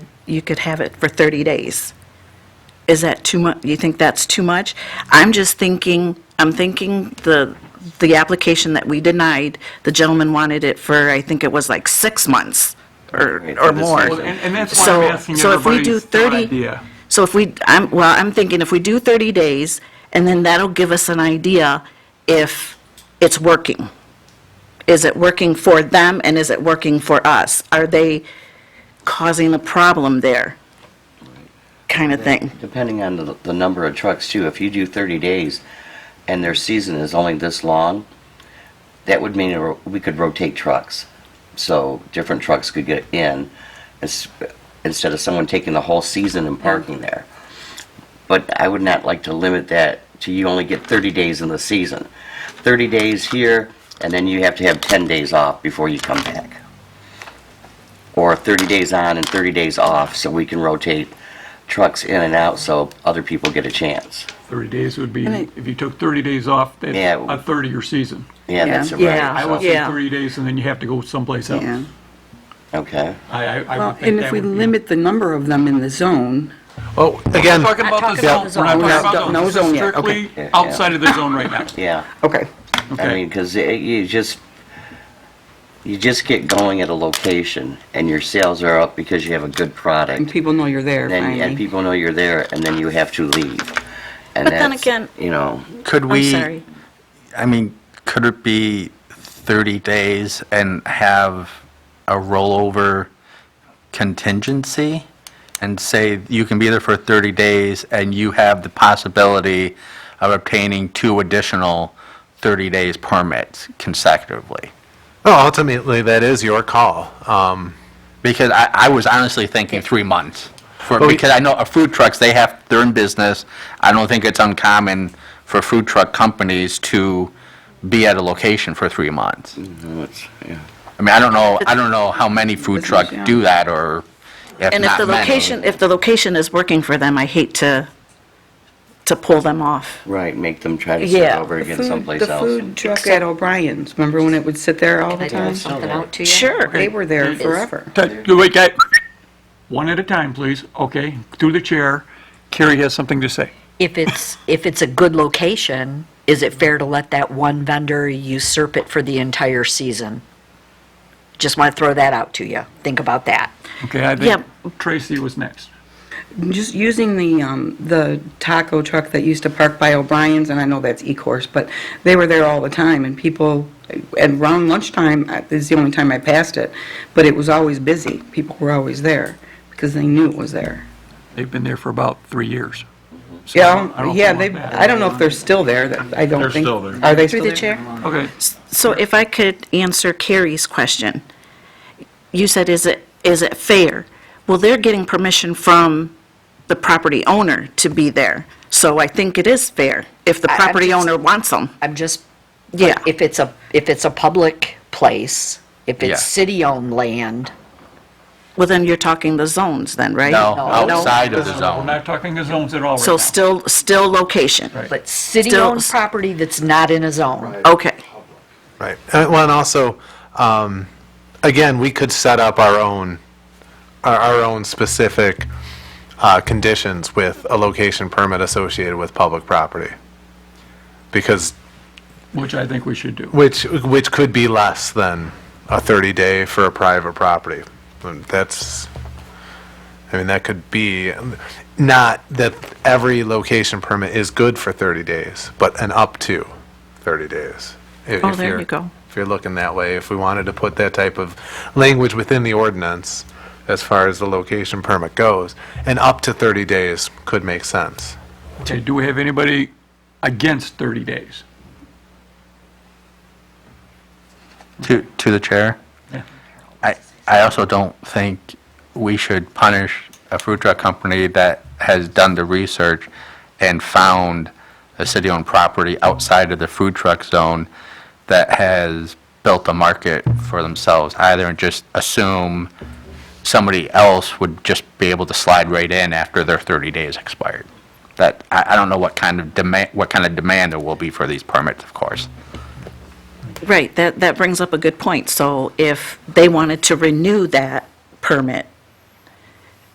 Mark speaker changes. Speaker 1: you could have it for 30 days. Is that too much? You think that's too much? I'm just thinking, I'm thinking the, the application that we denied, the gentleman wanted it for, I think it was like six months or,
Speaker 2: Right,
Speaker 1: or
Speaker 2: for this
Speaker 1: more.
Speaker 2: reason.
Speaker 1: So,
Speaker 3: And, and that's why I'm asking
Speaker 1: so if we do
Speaker 3: everybody's
Speaker 1: 30
Speaker 3: idea.
Speaker 1: So if we, I'm, well, I'm thinking if we do 30 days, and then that'll give us an idea if it's working. Is it working for them and is it working for us? Are they causing a problem there? Kind of thing.
Speaker 2: Depending on the, the number of trucks too, if you do 30 days and their season is only this long, that would mean ro- we could rotate trucks. So different trucks could get in ins- instead of someone taking the whole season and parking there. But I would not like to limit that to you only get 30 days in the season. 30 days here and then you have to have 10 days off before you come back. Or 30 days on and 30 days off so we can rotate trucks in and out so other people get a chance.
Speaker 3: 30 days would be,
Speaker 4: And I-
Speaker 3: if you took 30 days off, that's
Speaker 2: Yeah.
Speaker 3: a 30-year season.
Speaker 2: Yeah, that's right.
Speaker 1: Yeah.
Speaker 3: I
Speaker 2: so-
Speaker 3: would say
Speaker 1: Yeah.
Speaker 3: 30 days, and then you have to go someplace else.
Speaker 4: Yeah.
Speaker 2: Okay.
Speaker 3: I, I- I
Speaker 4: Well,
Speaker 3: would think
Speaker 4: and if
Speaker 3: that
Speaker 4: we
Speaker 3: would be...
Speaker 4: limit the number of them in the zone,
Speaker 5: Oh, again,
Speaker 3: We're talking about the
Speaker 4: talking about
Speaker 3: zone.
Speaker 4: the
Speaker 3: We're
Speaker 4: zone.
Speaker 3: not talking
Speaker 4: No, no
Speaker 3: about zone.
Speaker 4: zone
Speaker 3: This is
Speaker 4: yet. Okay.
Speaker 3: strictly
Speaker 2: Yeah, yeah.
Speaker 3: outside of the zone right now.
Speaker 2: Yeah.
Speaker 4: okay.
Speaker 2: I
Speaker 3: Okay.
Speaker 2: mean, because you just, you just get going at a location and your sales are up because you have a good
Speaker 4: And
Speaker 2: product.
Speaker 4: people know you're there
Speaker 2: And, and
Speaker 4: finally.
Speaker 2: people know you're there and then you have to leave. And
Speaker 1: But then
Speaker 2: that's,
Speaker 1: again-
Speaker 2: You know,
Speaker 5: could
Speaker 1: I'm
Speaker 5: we,
Speaker 1: sorry.
Speaker 5: I mean, could it be 30 days and have a rollover contingency? And say, you can be there for 30 days and you have the possibility of obtaining two additional 30 days permits consecutively?
Speaker 6: Well, Oh, ultimately, that is your call. Um,
Speaker 5: Because I, I was honestly thinking three months. For,
Speaker 6: Well, we-
Speaker 5: because I know uh, food trucks, they have, they're in business. I don't think it's uncommon for food truck companies to be at a location for three months.
Speaker 2: it's, yeah.
Speaker 5: I mean, I don't know, I don't know how many food
Speaker 4: Business,
Speaker 5: trucks
Speaker 4: yeah.
Speaker 5: do that or if
Speaker 1: And if the
Speaker 5: not many.
Speaker 1: location, if the location is working for them, I hate to, to pull them off.
Speaker 2: right, make them try to start
Speaker 1: Yeah.
Speaker 2: over
Speaker 4: The
Speaker 2: again
Speaker 4: food-
Speaker 2: someplace
Speaker 4: The
Speaker 2: else.
Speaker 4: food truck at O'Brien's, remember when it would sit there all the
Speaker 7: Can I
Speaker 4: time?
Speaker 7: throw something out to you?
Speaker 1: Sure.
Speaker 4: They were there
Speaker 7: Is-
Speaker 4: forever.
Speaker 3: Ted, you wait, Ted. One at a time, please. Okay, through the chair. Carrie has something to say.
Speaker 7: If it's, if it's a good location, is it fair to let that one vendor usurp it for the entire season? Just want to throw that out to you. Think about that.
Speaker 3: Okay, I think Tracy was next.
Speaker 4: Just using the, um, the taco truck that used to park by O'Brien's, and I know that's E-course, but they were there all the time, and people, and around lunchtime, I- this is the only time I passed it, but it was always busy. People were always there, because they knew it was there.
Speaker 3: They've been there for about three years. So I don't- I
Speaker 4: Yeah,
Speaker 3: don't
Speaker 4: yeah,
Speaker 3: feel
Speaker 4: they,
Speaker 3: bad.
Speaker 4: I don't know if they're still there, that- I don't
Speaker 6: They're
Speaker 4: think.
Speaker 6: still there.
Speaker 4: Are they
Speaker 1: Through
Speaker 4: still
Speaker 1: the
Speaker 4: there?
Speaker 1: chair?
Speaker 3: Okay.
Speaker 1: So if I could answer Carrie's question. You said, is it, is it fair? Well, they're getting permission from the property owner to be there. So I think it is fair if the
Speaker 7: I- I'm
Speaker 1: property
Speaker 7: just-
Speaker 1: owner wants them.
Speaker 7: I'm just,
Speaker 1: Yeah.
Speaker 7: if it's a, if it's a public place, if
Speaker 5: Yeah.
Speaker 7: it's city-owned land,
Speaker 1: Well, then you're talking the zones then, right?
Speaker 5: No,
Speaker 7: No.
Speaker 5: outside of the
Speaker 3: Uh, We're
Speaker 5: zone.
Speaker 3: not talking the zones at all right now.
Speaker 1: So still, still location?
Speaker 3: Right.
Speaker 7: but city-owned
Speaker 1: Still-
Speaker 7: property that's not in a zone.
Speaker 1: Okay.
Speaker 6: right. Uh, Well, and also, um, again, we could set up our own, our, our own specific uh, conditions with a location permit associated with public property. Because,
Speaker 3: Which I think we should do.
Speaker 6: which, which could be less than a 30-day for a private property. Um, That's, I mean, that could be, not that every location permit is good for 30 days, but an up to 30 days. If-
Speaker 1: Oh,
Speaker 6: if
Speaker 1: there
Speaker 6: you're-
Speaker 1: you go.
Speaker 6: If you're looking that way, if we wanted to put that type of language within the ordinance, as far as the location permit goes, and up to 30 days could make sense.
Speaker 3: Okay, do we have anybody against 30 days?
Speaker 5: To, to the chair?
Speaker 3: Yeah.
Speaker 5: I, I also don't think we should punish a food truck company that has done the research and found a city-owned property outside of the food truck zone that has built a market for themselves either and just assume somebody else would just be able to slide right in after their 30 days expired. That, I, I don't know what kind of demand, what kind of demand there will be for these permits, of course.
Speaker 1: Right, that, that brings up a good point. So if they wanted to renew that permit,